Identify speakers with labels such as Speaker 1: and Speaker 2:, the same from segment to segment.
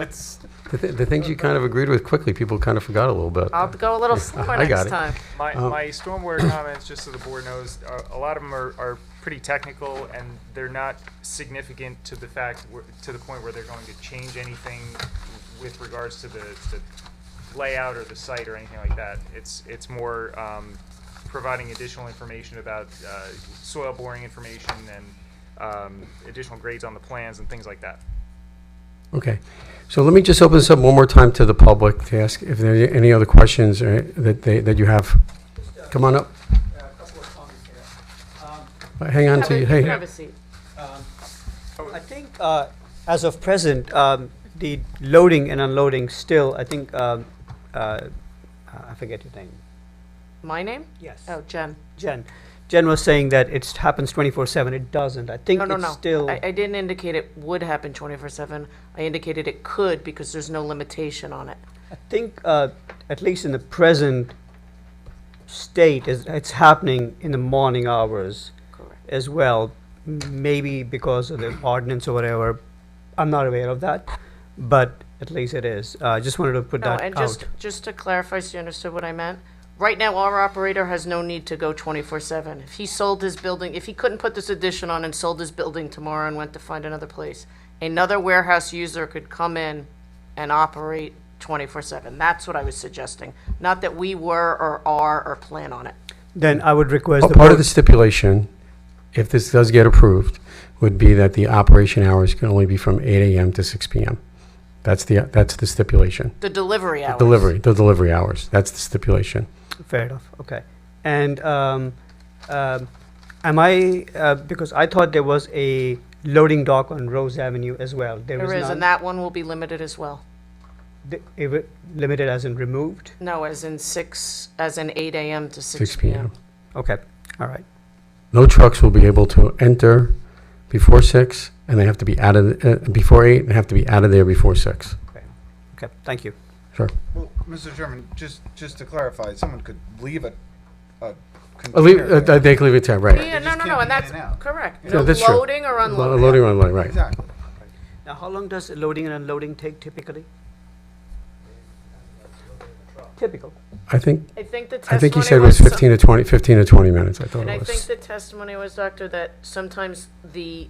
Speaker 1: Let's,
Speaker 2: The, th- the things you kind of agreed with quickly, people kind of forgot a little bit.
Speaker 3: I'll go a little slower
Speaker 2: I got
Speaker 3: next
Speaker 2: it.
Speaker 3: time.
Speaker 1: my,
Speaker 2: Oh.
Speaker 1: my stormwater comments, just so the board knows, are, a lot of them are, are pretty technical and they're not significant to the fact, where- to the point where they're going to change anything with regards to the, the layout or the site or anything like that. It's, it's more, um, providing additional information about, uh, soil boring information and, um, additional grades on the plans and things like that.
Speaker 2: Okay, so let me just open this up one more time to the public to ask if there are any other questions or that they, that you have. Come on up, Uh,
Speaker 4: a couple of comments here. Um,
Speaker 2: hang on to, you.
Speaker 3: Have a-
Speaker 2: hey,
Speaker 3: Have a seat.
Speaker 4: I think, uh, as of present, um, the loading and unloading still, I think, um, uh, I forget your name.
Speaker 3: My name?
Speaker 4: Yes.
Speaker 3: Oh, Jen.
Speaker 4: Jen. Jen was saying that it happens 24/7. It doesn't. I think
Speaker 3: No, no,
Speaker 4: it's
Speaker 3: no.
Speaker 4: still.
Speaker 3: I, I didn't indicate it would happen twenty-four seven. I indicated it could because there's no limitation on it.
Speaker 4: I think, uh, at least in the present state, is it's happening in the morning hours
Speaker 3: Correct.
Speaker 4: as well. Maybe because of the ordinance or whatever. I'm not aware of that, but at least it is. Uh, I just wanted to put
Speaker 3: No,
Speaker 4: that
Speaker 3: and
Speaker 4: out.
Speaker 3: just, just to clarify, so you understood what I meant, right now, our operator has no need to go twenty-four seven. If he sold his building, if he couldn't put this addition on and sold his building tomorrow and went to find another place, another warehouse user could come in and operate twenty-four seven. That's what I was suggesting. Not that we were or are or plan on it.
Speaker 4: Then I would request the
Speaker 2: Oh, part of
Speaker 4: board,
Speaker 2: the stipulation, if this does get approved, would be that the operation hours can only be from eight AM to six PM. That's the, that's the stipulation.
Speaker 3: The delivery hours.
Speaker 2: Delivery, the delivery hours, that's the stipulation.
Speaker 4: fair enough, okay. And um, um, am I, uh, because I thought there was a loading dock on Rose Avenue as well. There
Speaker 3: There
Speaker 4: is
Speaker 3: is,
Speaker 4: none.
Speaker 3: and that one will be limited as well.
Speaker 4: Th- it wa- Limited as in removed?
Speaker 3: No, as in six, as in eight AM to
Speaker 2: Six
Speaker 3: six
Speaker 2: PM.
Speaker 3: PM.
Speaker 4: Okay, all right.
Speaker 2: No trucks will be able to enter before six, and they have to be out of, uh, before eight, and have to be out of there before six.
Speaker 4: Okay, thank you.
Speaker 2: Sure.
Speaker 5: Well, Mr. Chairman, just, just to clarify, someone could leave a, a
Speaker 2: Uh, leave-
Speaker 5: container
Speaker 2: uh,
Speaker 5: there.
Speaker 2: They can leave it there, right.
Speaker 3: Yeah, no,
Speaker 5: just
Speaker 3: no,
Speaker 5: can't
Speaker 3: no,
Speaker 5: be
Speaker 3: and
Speaker 5: in
Speaker 3: that's
Speaker 5: and out.
Speaker 3: correct.
Speaker 2: No,
Speaker 3: No
Speaker 2: that's true.
Speaker 3: loading or
Speaker 2: Lo-
Speaker 3: unloading.
Speaker 2: Loading or unloading, right.
Speaker 5: Exactly.
Speaker 4: Now, how long does loading and unloading take typically? Typical.
Speaker 2: I think,
Speaker 3: I think the
Speaker 2: I think he said
Speaker 3: testimony
Speaker 2: it was
Speaker 3: some-
Speaker 2: 15 to 20, 15 to 20 minutes, I thought
Speaker 3: And I
Speaker 2: it
Speaker 3: think
Speaker 2: was.
Speaker 3: the testimony was, Doctor, that sometimes the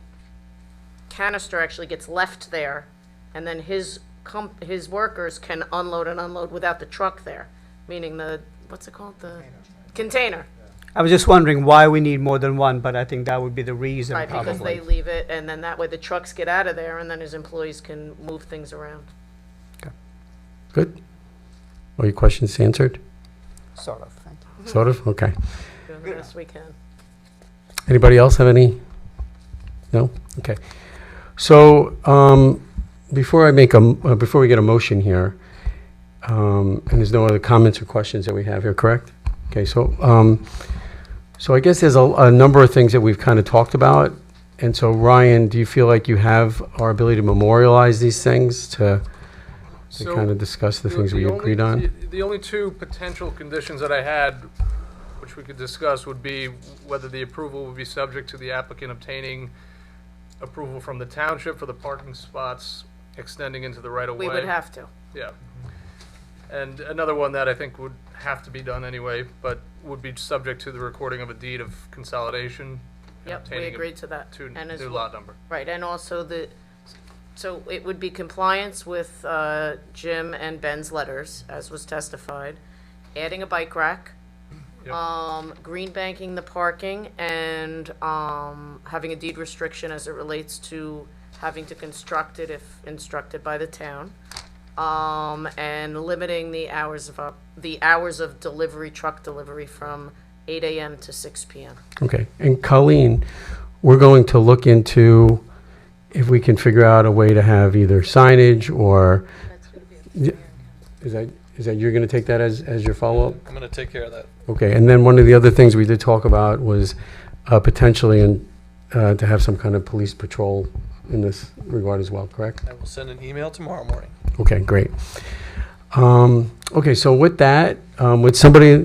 Speaker 3: canister actually gets left there, and then his comp, his workers can unload and unload without the truck there, meaning the, what's it called, the container,
Speaker 4: I was just wondering why we need more than one, but I think that would be the reason
Speaker 3: right? Because they
Speaker 4: probably.
Speaker 3: leave it, and then that way the trucks get out of there, and then his employees can move things around.
Speaker 2: Good? All your questions answered?
Speaker 4: Sort of, thank you.
Speaker 3: Mm-hmm.
Speaker 2: Sort of? Okay.
Speaker 3: Doing the best we can.
Speaker 2: Anybody else have any? No? Okay. So, um, before I make a, m- uh, before we get a motion here, um, and there's no other comments or questions that we have here, correct? Okay, so, um, so I guess there's a, a number of things that we've kind of talked about. And so Ryan, do you feel like you have our ability to memorialize these things, to, to
Speaker 6: So
Speaker 2: kind of discuss the things we
Speaker 6: only-
Speaker 2: agreed on?
Speaker 6: the- The only two potential conditions that I had, which we could discuss, would be whether the approval would be subject to the applicant obtaining approval from the township for the parking spots extending into the right of way.
Speaker 3: We would have to.
Speaker 6: Yeah. And another one that I think would have to be done anyway, but would be subject to the recording of a deed of consolidation. and
Speaker 3: Yep, we
Speaker 6: obtaining a
Speaker 3: agreed to that.
Speaker 6: two-
Speaker 3: And as
Speaker 6: New
Speaker 3: well,
Speaker 6: lot number.
Speaker 3: right, and also the, so it would be compliance with uh, Jim and Ben's letters, as was testified, adding a bike rack,
Speaker 6: Yep.
Speaker 3: um, green banking the parking, and um, having a deed restriction as it relates to having to construct it if instructed by the town, um, and limiting the hours of, op- the hours of delivery, truck delivery from 8 AM to 6 PM.
Speaker 2: Okay, and Colleen, we're going to look into if we can figure out a way to have either signage or. Yeah, Is that, is that, you're gonna take that as, as your follow-up?
Speaker 7: I'm gonna take care of that.
Speaker 2: Okay, and then one of the other things we did talk about was uh, potentially in, uh, to have some kind of police patrol in this regard as well, correct?
Speaker 7: I will send an email tomorrow morning.
Speaker 2: Okay, great. Um, okay, so with that, um, would somebody,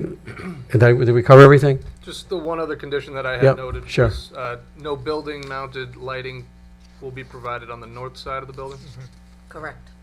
Speaker 2: did I, did we cover everything?
Speaker 6: Just the one other condition that I
Speaker 2: Yep,
Speaker 6: had noted
Speaker 2: sure.
Speaker 6: was, uh, no building mounted lighting will be provided on the north side of the building.
Speaker 3: Correct.